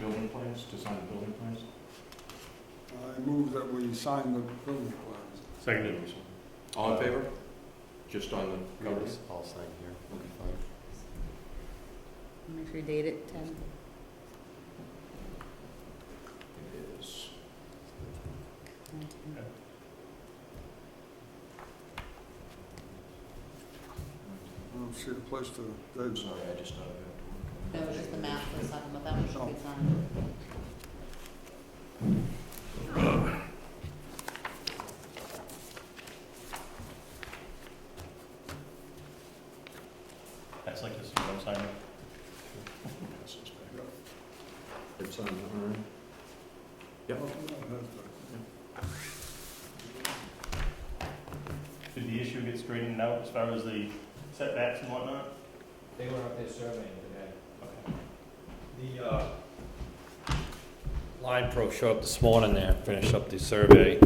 building plans, to sign the building plans? I move that we sign the building plans. Seconded. All in favor? Uh, Just on the covers? I'll sign here, we'll be fine. Make sure you date it ten. It is. I don't see a place to, I'm that's, sorry, I just thought I had to work. on That was just the map we was talking about, that one should be signed. That's like this, I'm signing. Pass this back. It's on the arm. Yep. Did the issue get straightened out as far as the setbacks and whatnot? They were up there surveying today. Okay. The, uh, Line Pro showed up this morning there, finished up the survey.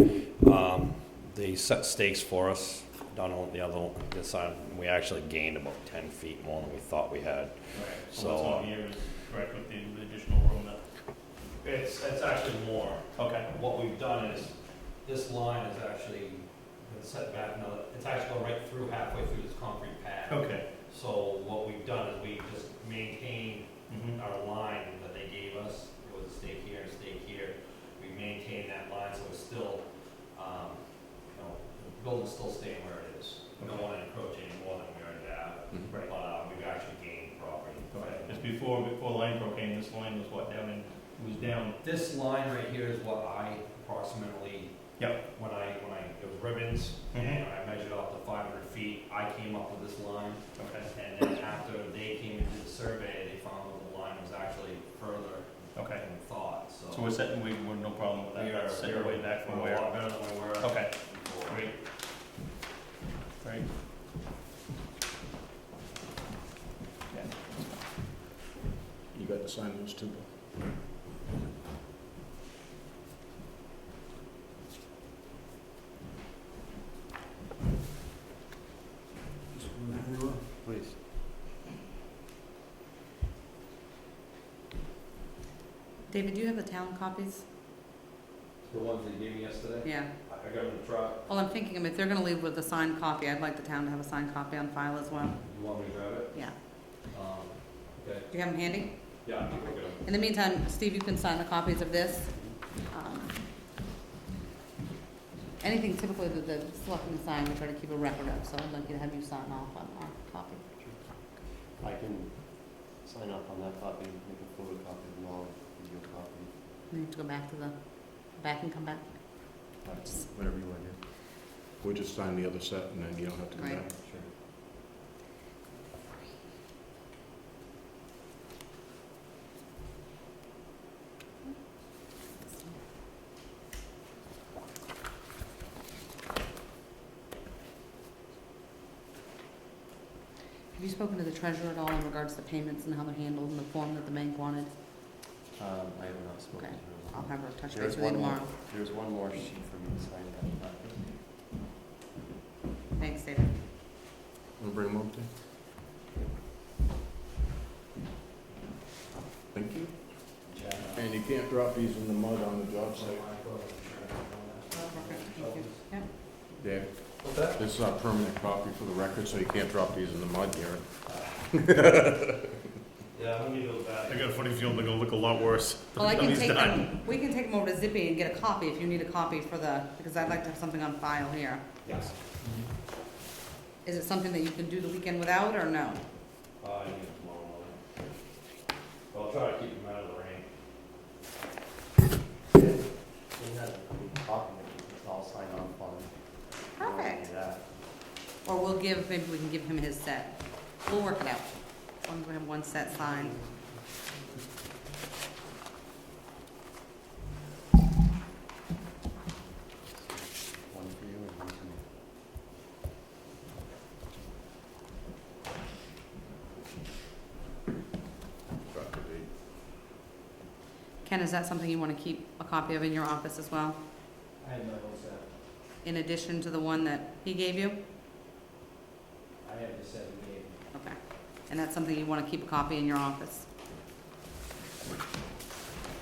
Um, they set stakes for us down on the other, this side. We actually gained about ten feet more than we thought we had. So what's on here is correct with the the additional room that, It's, it's actually more. okay. What we've done is, this line is actually been set back another, it's actually going right through halfway through this concrete pad. Okay. So what we've done is we just maintained Mhm. our line that they gave us, it was a stake here, a stake here, we maintained that line, so it's still, um, you know, the building's still staying where it is. We don't wanna encroach any more than we already have, Mhm. but, uh, we've actually gained property. Okay, because before, before Line Pro came, this line was what, down in, it was down, This line right here is what I approximately. Yep. When I, when I, it was ribbons, Mm-hmm. and I measured off the five hundred feet, I came up with this line. okay, And then after they came and did the survey, they found that the line was actually further okay. than thought, so. So we're setting, we, we're no problem with that, We are- that's set way back from We're where. a lot better than we were Okay, before. great. Great. You got to sign those two. Please. David, do you have the town copies? The ones they gave me yesterday, Yeah. I I got in the truck, Well, I'm thinking if they're gonna leave with a signed copy, I'd like the town to have a signed copy on file as well. you want me to grab it? Yeah. Um, okay, Do you have them handy? yeah, I think we're good. In the meantime, Steve, you can sign the copies of this. Um, Anything typically that the selectmen sign, we try to keep a record of, so I'd like you to have you sign off on our copy. I can sign up on that copy, make a photocopy of the law, video copy. You have to go back to the, back and come back. Whatever you want to do. We'll just sign the other set and then you don't have to go Right. back. Sure. Have you spoken to the treasurer at all in regards to payments and how they're handled and the form that the bank wanted? Um, I have not spoken Okay. to I'll have her touch There's base with you one more. tomorrow. There's one more sheet for me to sign that. Thanks, David. Want to bring them up there? Thank you. And you can't drop these in the mud on the job site. Thank you. Yep. Dave, What's that? this is our permanent copy for the record, so you can't drop these in the mud, Garrett. Yeah, I'm gonna give those back. got a funny feeling they're gonna look a lot worse. Well, I can take them, we can take them over to Zippy and get a copy if you need a copy for the, because I'd like to have something on file here. Yes. Is it something that you can do the weekend without or no? Uh, I need it tomorrow morning. But I'll try to keep them out of the rain. Perfect. Or we'll give, maybe we can give him his set. We'll work it out. As long as we have one set signed. One for you and one for me. Ken, is that something you want to keep a copy of in your office as well? I had my whole set. In addition to the one that he gave you? I had the set you gave me. Okay. And that's something you want to keep a copy in your office?